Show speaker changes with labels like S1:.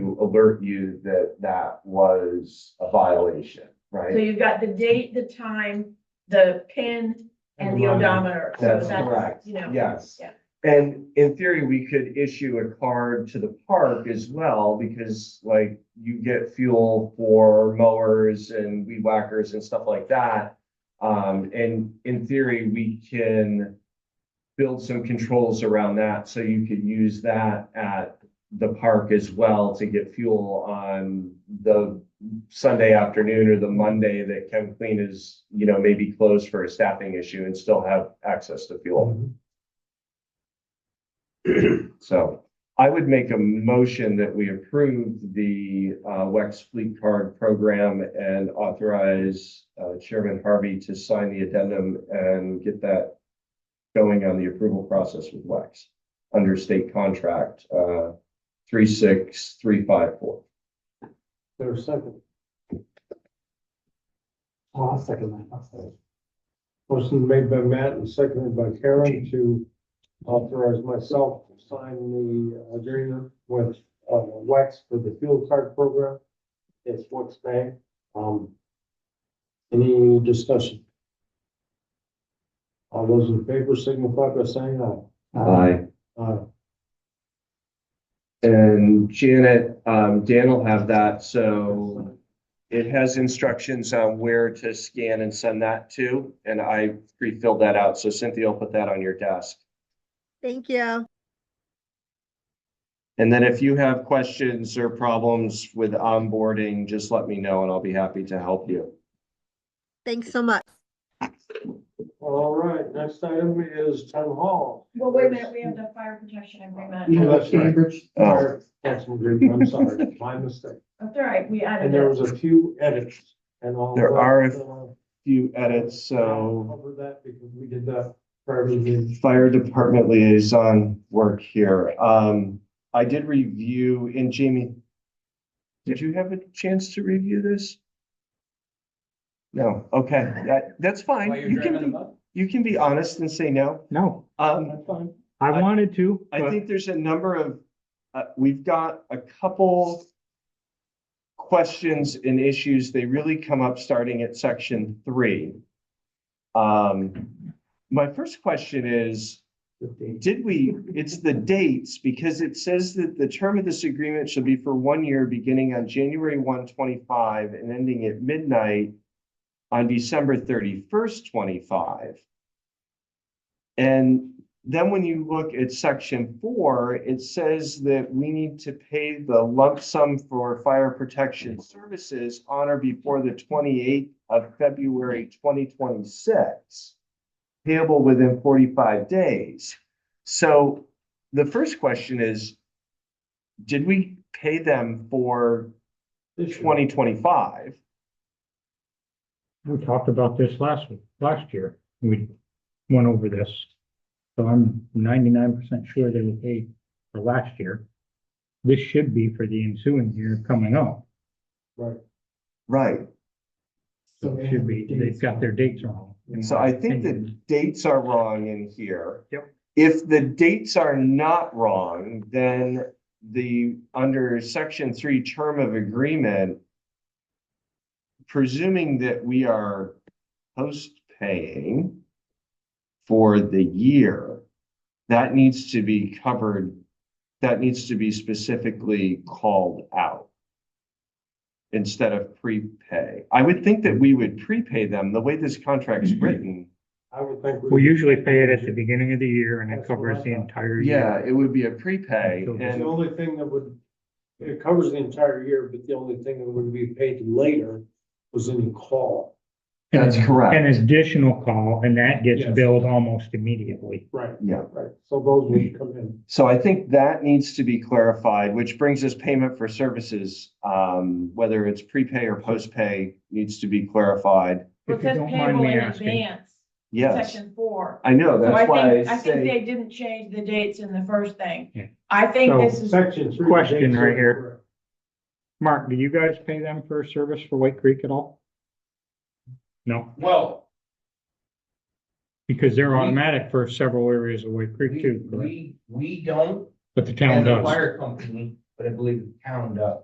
S1: alert you that that was a violation,
S2: So
S1: right?
S2: you've got the date, the time, the pin and the
S3: Right.
S2: odometer. So
S1: That's correct.
S2: You know.
S1: Yes.
S2: Yeah.
S1: And in theory, we could issue a card to the park as well, because like you get fuel for mowers and weed whackers and stuff like that. Um, and in theory, we can build some controls around that, so you could use that at the park as well to get fuel on the Sunday afternoon or the Monday that Chem Clean is, you know, maybe closed for a staffing issue and still have access to fuel. So I would make a motion that we approve the uh, WEX Fleet Card Program and authorize uh, Chairman Harvey to sign the addendum and get that going on the approval process with WEX under state contract uh, 36354.
S3: There's a second. Oh, I'll second that, I'll second. Motion made by Matt and seconded by Karen to authorize myself to sign the agreement with, uh, Wex for the fuel card program. It's what's name, um. Any discussion? All those in favor signify by saying aye. Aye.
S1: And Janet, um, Dan will have that, so It has instructions on where to scan and send that to, and I pre-filled that out, so Cynthia will put that on your desk.
S4: Thank you.
S1: And then if you have questions or problems with onboarding, just let me know and I'll be happy to help you.
S4: Thanks so much.
S3: All right, next item is town hall.
S2: Well, wait a minute, we have the fire protection agreement.
S3: Yeah, that's right.
S1: Oh.
S3: That's a great, I'm sorry, my mistake.
S2: That's all right, we
S3: And
S2: added
S3: there
S2: it.
S3: was a few edits and all.
S1: There
S3: that,
S1: are a-
S3: uh,
S1: Few edits, so
S3: Cover that because we did that for everything.
S1: fire department liaison work here. Um, I did review, and Jamie, did you have a chance to review this? No, okay, that, that's fine. You can be- You can be honest and say no.
S5: No,
S1: Um,
S3: fine.
S5: I
S1: I-
S5: wanted to,
S1: I
S5: but
S1: think there's a number of, uh, we've got a couple questions and issues. They really come up starting at section three. Um, my first question is, did we, it's the dates, because it says that the term of this agreement shall be for one year, beginning on January 1, 25, and ending at midnight on December thirty-first, twenty-five. And then when you look at section four, it says that we need to pay the lump sum for fire protection services on or before the twenty-eighth of February twenty twenty-six, payable within forty-five days. So the first question is, did we pay them for
S3: This year.
S1: twenty twenty-five?
S5: we talked about this last, last year. We went over this. So I'm ninety-nine percent sure they were paid for last year. This should be for the ensuing year coming up.
S3: Right.
S1: Right.
S5: So it should be, they've got their dates wrong. in
S1: So
S5: my
S1: I think the
S5: opinion.
S1: dates are wrong in here.
S5: Yep.
S1: If the dates are not wrong, then the, under section three term of agreement, presuming that we are post-paying for the year, that needs to be covered, that needs to be specifically called out instead of prepay. I would think that we would prepay them, the way this contract's written.
S3: I would think.
S5: We usually pay it at the beginning of the year and it covers the entire
S1: Yeah,
S5: year.
S1: it would be a prepay
S5: So-
S3: The
S1: and,
S3: only thing that would, it covers the entire year, but the only thing that would be paid later was any call.
S5: And
S1: That's
S5: it's-
S1: correct.
S5: An additional call and that gets
S3: Yes.
S5: billed almost immediately.
S3: Right.
S1: yeah.
S3: Right, so those would come in.
S1: So I think that needs to be clarified, which brings us payment for services. Um, whether it's prepay or postpay needs to be clarified.
S2: Well,
S5: If
S2: It
S5: you
S2: says
S5: don't mind
S2: payable
S5: me
S2: in
S5: asking,
S2: advance,
S1: Yes,
S2: section four.
S1: I know,
S2: So I
S1: that's why I
S2: think, I think
S1: say,
S2: they didn't change the dates in the first
S5: Yeah.
S2: thing. I think
S5: So-
S2: this is,
S3: Section three.
S5: Question
S3: dates
S5: right
S3: are
S5: here.
S3: correct.
S5: Mark, do you guys pay them for service for White Creek at all? No,
S6: Well,
S5: because they're
S6: We-
S5: automatic for several areas of White Creek
S6: we,
S5: too, correct?
S6: we, we don't,
S5: but the town
S6: and the
S5: does.
S6: fire company, but I believe the town does.